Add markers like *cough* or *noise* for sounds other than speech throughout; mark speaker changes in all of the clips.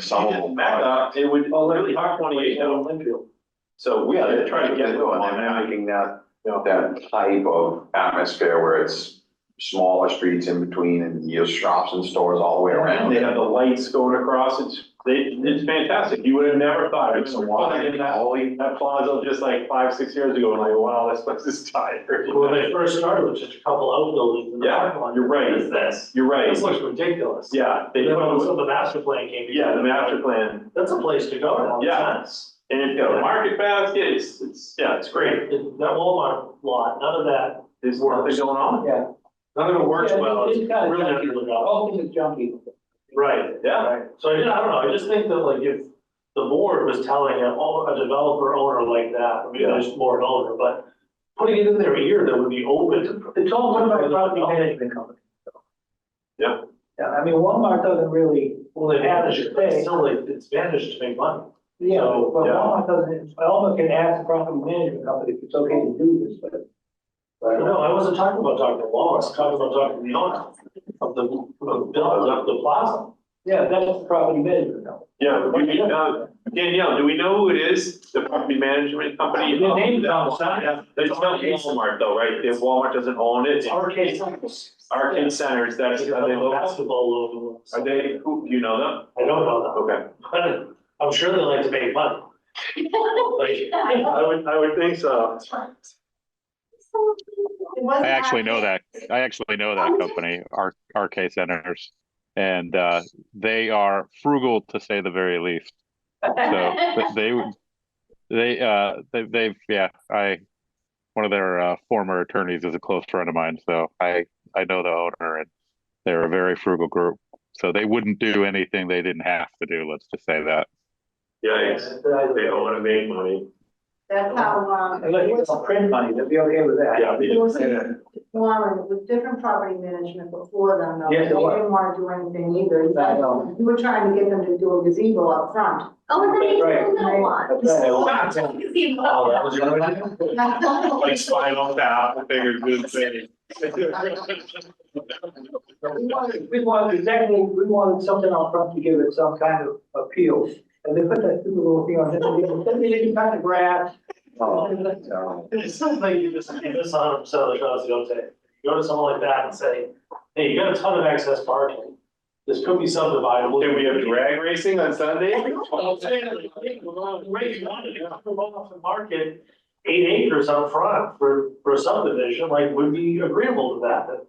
Speaker 1: Some of them.
Speaker 2: Back up, it would
Speaker 3: Oh,
Speaker 2: really hard twenty-eight down Linfield. So we are trying to get them
Speaker 1: Well,
Speaker 2: on
Speaker 1: they're
Speaker 2: that.
Speaker 1: making that, you know, that type of atmosphere where it's smaller streets in between and your shops and stores all the way around.
Speaker 2: They have the lights going across, it's, they, it's fantastic, you would have never thought of it.
Speaker 1: It's a wide
Speaker 2: In that-
Speaker 1: alley.
Speaker 2: That plaza just like five, six years ago, and like, wow, this place is tired.
Speaker 3: When they first started, it was just a couple outbuildings in the
Speaker 2: Yeah,
Speaker 3: parking lot.
Speaker 2: you're right.
Speaker 3: What is this?
Speaker 2: You're right,
Speaker 3: This looks ridiculous.
Speaker 2: yeah, they,
Speaker 3: Then when the the master plan came.
Speaker 2: yeah, the master plan,
Speaker 3: That's a place to go now.
Speaker 2: Yeah.
Speaker 3: That's,
Speaker 2: and it's got a market basket, it's, it's, yeah, it's great.
Speaker 3: that Walmart lot, none of that.
Speaker 2: There's nothing going on.
Speaker 4: Yeah.
Speaker 3: None of it works
Speaker 4: Yeah, it-
Speaker 3: well. It's
Speaker 4: it's kinda
Speaker 3: really not
Speaker 4: junky.
Speaker 3: gonna look
Speaker 4: The
Speaker 3: out.
Speaker 4: whole thing is junky.
Speaker 3: Right.
Speaker 2: Yeah,
Speaker 3: Right. So I did, I don't know, I just think that like if the board was telling a, a developer owner like that, I mean, there's more an owner, but putting it in their ear that would be open to.
Speaker 4: It's all run by a property management company. so.
Speaker 2: Yeah.
Speaker 4: Yeah, I mean, Walmart doesn't really,
Speaker 3: Well, they manage it, but it's still like, it's managed to make money.
Speaker 4: you
Speaker 3: So,
Speaker 4: know, but
Speaker 2: yeah.
Speaker 4: Walmart doesn't, Walmart can ask the property management company if it's okay to do this, but. but- uh,
Speaker 3: No, I wasn't talking about talking to Walmart, I was talking about talking to the owner of the, of the, building, of the plaza.
Speaker 4: Yeah, that's the property management company.
Speaker 2: yeah, we, we, uh, Danielle, do we know who it is, the property management company?
Speaker 3: The name is on the side.
Speaker 2: It's not Walmart though, right, If Walmart doesn't own it, it's
Speaker 3: Arcade Center.
Speaker 2: Arcade Centers, that's, are they local?
Speaker 3: Basketball logo.
Speaker 2: Are they, who, do you know them?
Speaker 3: I don't know
Speaker 2: Okay.
Speaker 3: that, but I'm sure they like to make money. Like, *laughs*
Speaker 2: I would, I would think so.
Speaker 5: I actually know that. I actually know that company, R- RK Centers. And uh, they are frugal to say the very least. So th- they, would- they, uh, they, they've, yeah, I, one of their uh, former attorneys is a close friend of mine. So I, I know the owner and they're a very frugal group. So they wouldn't do anything they didn't have to do. Let's just say that.
Speaker 2: Yikes, they don't wanna make money.
Speaker 6: That's how, um,
Speaker 4: uh, Unless
Speaker 6: it
Speaker 4: you
Speaker 6: was
Speaker 4: don't print money, they'll be okay with that.
Speaker 2: Yeah,
Speaker 6: it
Speaker 2: they-
Speaker 6: was Warren, it was different property management before them, though.
Speaker 4: Yes, it was.
Speaker 6: They didn't wanna do anything either. You
Speaker 4: I
Speaker 6: guys-
Speaker 4: know.
Speaker 6: You were trying to get them to do a gazebo up front.
Speaker 7: Oh, and then you
Speaker 4: Right.
Speaker 7: do that
Speaker 4: That's right.
Speaker 7: one. You know.
Speaker 3: Oh, that was your original.
Speaker 2: like spinal tap, figure good *laughs* thing.
Speaker 4: We wanted, we wanted exactly, we wanted something out front to give it some kind of appeal. And they put that stupid little thing on, it. they didn't cut the grass.
Speaker 3: It's something you just, you just saw them sell the shots the other day. You go to someone like that and say, hey, you got a ton of excess parking. This could be subdivided.
Speaker 2: Can we have drag racing on
Speaker 3: *laughs*
Speaker 2: Sunday?
Speaker 3: Right, you wanted to come off and market eight acres up front for, for subdivision, like, would be agreeable to that, but.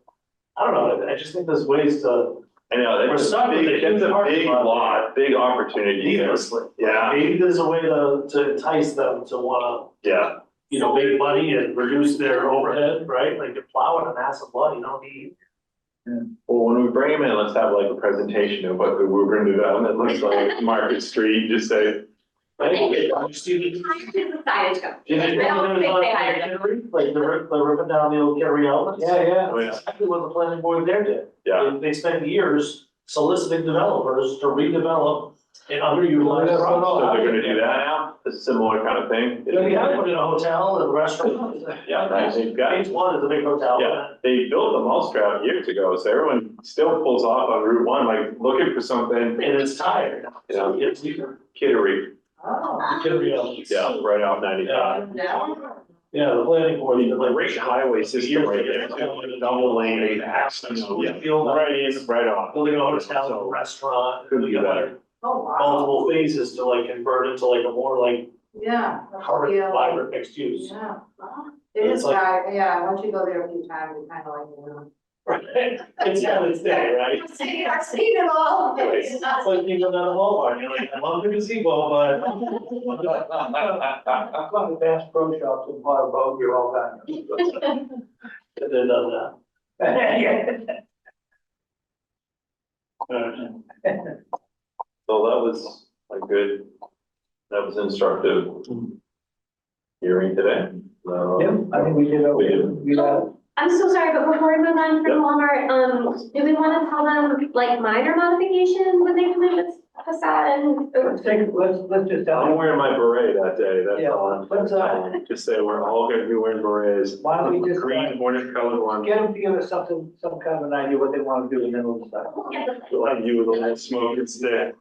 Speaker 3: I don't know, I I just think there's ways to
Speaker 2: I know,
Speaker 3: We're
Speaker 2: that's a
Speaker 3: stuck with
Speaker 2: big,
Speaker 3: the huge
Speaker 2: that's a
Speaker 3: parking
Speaker 2: big
Speaker 3: lot.
Speaker 2: lot, big opportunity there.
Speaker 3: needlessly.
Speaker 2: Yeah,
Speaker 3: Maybe there's a way to, to entice them to wanna,
Speaker 2: yeah,
Speaker 3: you know, make money and reduce their overhead, right? Like, you're plowing a massive lot, you don't need
Speaker 2: well, when we bring him in, let's have like a presentation of what the Woburn development looks
Speaker 4: *laughs*
Speaker 2: like, Market Street, just say.
Speaker 3: Right?
Speaker 7: Okay.
Speaker 3: I'm just even-
Speaker 7: Hired is a side job.
Speaker 3: Did
Speaker 7: I
Speaker 3: they-
Speaker 7: don't think they hired him.
Speaker 3: Like, they're, rip- they're ripping down the old Gary Ellis.
Speaker 4: Yeah, yeah.
Speaker 2: Oh, yeah.
Speaker 3: Exactly what the planning board there did.
Speaker 2: Yeah,
Speaker 3: Uh, They- They spent years soliciting developers to redevelop and underutilized.
Speaker 4: That's what
Speaker 2: so
Speaker 3: property.
Speaker 2: they're gonna do that now, a similar kind of thing.
Speaker 3: Yeah, they had to put in a hotel and a restaurant.
Speaker 2: Yeah, right, they've got-
Speaker 3: Phase one is a big hotel.
Speaker 2: Yeah, they built the mousetrap years ago, so everyone still pulls off on Route One, like looking for something,
Speaker 3: And it's tired. So it's either,
Speaker 2: kittery,
Speaker 6: Oh.
Speaker 3: it could be, a-
Speaker 2: yeah, right off ninety-five.
Speaker 6: No.
Speaker 3: yeah, the planning board, you know, like.
Speaker 2: Great highway system right there, double lane, access, yeah, right in, right
Speaker 4: *laughs*
Speaker 2: off.
Speaker 3: Building a hotel, a restaurant.
Speaker 2: Could be
Speaker 3: you know,
Speaker 2: better.
Speaker 6: Oh, wow.
Speaker 3: Multiple phases to like convert it to like a more like
Speaker 6: Yeah. that's
Speaker 3: carbon
Speaker 6: real.
Speaker 3: fiber mixed use.
Speaker 6: Yeah. wow. It is,
Speaker 3: It's like-
Speaker 6: right, yeah, once you go there a few times, you kind of like, you know.
Speaker 3: Right, *laughs* it's how it's there, right? *laughs*
Speaker 6: I've seen, I've seen it all.
Speaker 3: It's not like you go down the Walmart, you're like, I love the gazebo, but.
Speaker 6: *laughs*
Speaker 4: I've gone to Bass Pro Shops and bought a boat here all the time.
Speaker 3: And then done that. Alright.
Speaker 2: So that was a good, that was instructive hearing today. Um,
Speaker 4: Yeah, I think we did, okay. we got,
Speaker 7: I'm so sorry, but before we move on
Speaker 2: Yeah.
Speaker 7: from Walmart, um, do we wanna tell them like minor modification when they come in with facade and, ooh,
Speaker 4: Let's take, let's, let's just
Speaker 2: I'm
Speaker 4: tell
Speaker 2: wearing my beret that day,
Speaker 4: them, uh, yeah,
Speaker 2: that's
Speaker 4: *laughs*
Speaker 2: all.
Speaker 4: let's, uh,
Speaker 2: Um, Just say we're all gonna be wearing berets.
Speaker 4: Why don't we just, uh,
Speaker 2: Green, orange colored one,
Speaker 4: get them together, something, some kind of an idea what they wanna do, and then we'll decide.
Speaker 7: yeah, the-
Speaker 2: like you with a little smoke instead.